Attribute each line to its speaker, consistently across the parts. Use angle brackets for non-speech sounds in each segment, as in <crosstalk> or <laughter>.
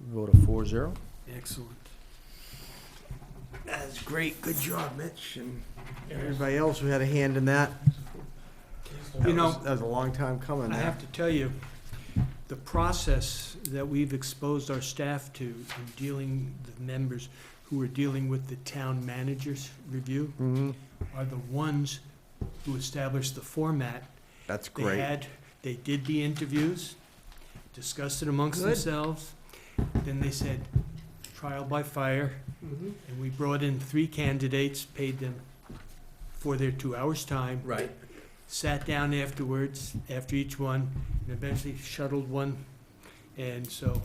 Speaker 1: Vote of four zero.
Speaker 2: Excellent.
Speaker 3: That's great. Good job, Mitch, and everybody else who had a hand in that. That
Speaker 2: You know-
Speaker 3: was- That was a long time coming.
Speaker 2: I
Speaker 3: that.
Speaker 2: have to tell you, the process that we've exposed our staff to in dealing, the members who are dealing with the town manager's review
Speaker 3: Mhm.
Speaker 2: are the ones who established the format.
Speaker 3: That's
Speaker 2: They
Speaker 3: great.
Speaker 2: had, they did the interviews, discussed it amongst
Speaker 3: Good.
Speaker 2: themselves, then they said, trial by fire,
Speaker 3: Mhm.
Speaker 2: and we brought in three candidates, paid them for their two hours' time,
Speaker 3: Right.
Speaker 2: sat down afterwards, after each one, and eventually shuttled one. And so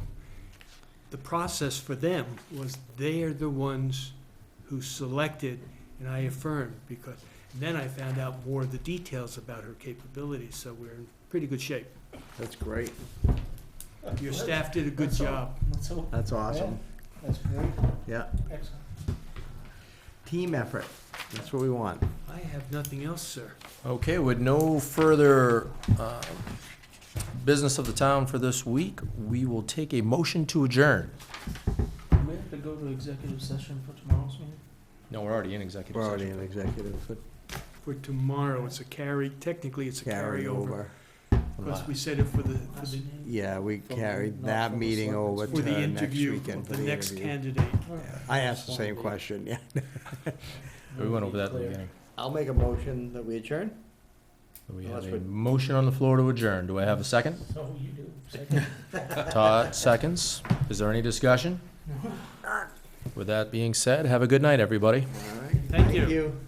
Speaker 2: the process for them was they are the ones who selected, and I affirmed, because then I found out more of the details about her capabilities, so we're in pretty good shape.
Speaker 3: That's great.
Speaker 2: Your staff did a good
Speaker 4: That's all.
Speaker 2: job.
Speaker 4: That's all.
Speaker 3: That's awesome.
Speaker 4: That's great.
Speaker 3: Yeah.
Speaker 4: Excellent.
Speaker 3: Team effort. That's what we want.
Speaker 2: I have nothing else, sir.
Speaker 5: Okay, with no further uh, business of the town for this week, we will take a motion to adjourn.
Speaker 4: Do we have to go to executive session for tomorrow's meeting?
Speaker 5: No, we're already in executive
Speaker 3: We're already
Speaker 5: session.
Speaker 3: in executive, but
Speaker 2: For tomorrow, it's a carry, technically, it's a
Speaker 3: carry
Speaker 2: carryover.
Speaker 3: over.
Speaker 2: Because we said it for the, for
Speaker 4: Last
Speaker 2: the,
Speaker 4: meeting?
Speaker 3: Yeah, we
Speaker 4: From-
Speaker 3: carried
Speaker 4: not
Speaker 3: that
Speaker 4: from the
Speaker 3: meeting
Speaker 4: selectmen's
Speaker 3: over
Speaker 2: for the
Speaker 3: to next
Speaker 2: interview,
Speaker 3: weekend.
Speaker 2: of the
Speaker 3: for the
Speaker 2: next
Speaker 3: interview.
Speaker 2: candidate.
Speaker 3: Yeah. I asked the same question, yeah.
Speaker 5: We went over that at the beginning.
Speaker 3: I'll make a motion that we adjourn.
Speaker 5: We
Speaker 3: Well,
Speaker 5: have
Speaker 3: that's
Speaker 5: a
Speaker 3: what-
Speaker 5: motion on the floor to adjourn. Do I have
Speaker 4: <laughs>
Speaker 5: a second?
Speaker 4: So Oh,
Speaker 3: <laughs>
Speaker 4: you do. Second.
Speaker 5: Todd seconds. Is there any discussion? With that being said, have a good night, everybody.
Speaker 3: All right.
Speaker 2: Thank you.
Speaker 3: you.